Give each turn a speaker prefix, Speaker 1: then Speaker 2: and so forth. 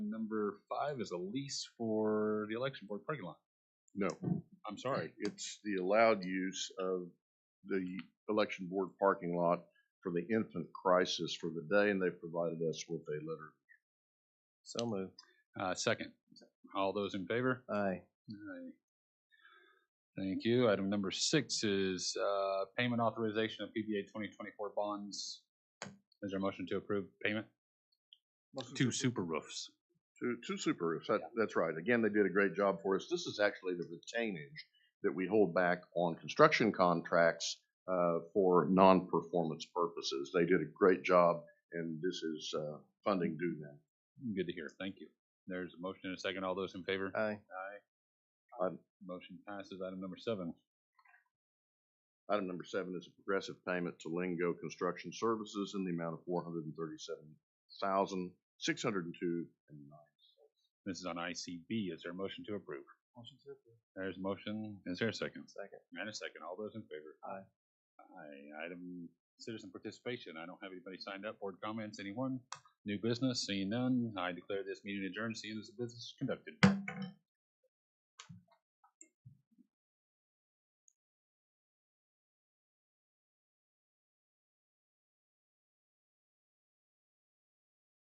Speaker 1: number five is a lease for the election board parking lot.
Speaker 2: No,
Speaker 1: I'm sorry.
Speaker 2: it's the allowed use of the election board parking lot for the infant crisis for the day, and they provided us with a letter.
Speaker 3: So moved.
Speaker 1: Uh, second, all those in favor?
Speaker 3: Aye.
Speaker 1: Aye. Thank you. Item number six is, uh, payment authorization of PBA twenty twenty-four bonds. Is there a motion to approve payment? Two super roofs.
Speaker 2: Two, two super roofs, that, that's right. Again, they did a great job for us. This is actually the retainage that we hold back on construction contracts uh, for non-performance purposes. They did a great job, and this is uh, funding due now.
Speaker 1: Good to hear. Thank you. There's a motion and a second. All those in favor?
Speaker 3: Aye.
Speaker 1: Aye.
Speaker 2: Aye.
Speaker 1: Motion passes. Item number seven.
Speaker 2: Item number seven is a progressive payment to Lingo Construction Services in the amount of four hundred and thirty-seven thousand, six hundred and two and nine cents.
Speaker 1: This is on ICB. Is there a motion to approve?
Speaker 3: Motion to approve.
Speaker 1: There's a motion. Is there a second?
Speaker 3: Second.
Speaker 1: And a second. All those in favor?
Speaker 3: Aye.
Speaker 1: Aye. Item citizen participation. I don't have anybody signed up. Board comments, anyone? New business, seeing none. I declare this meeting adjourned, seeing as the business is conducted.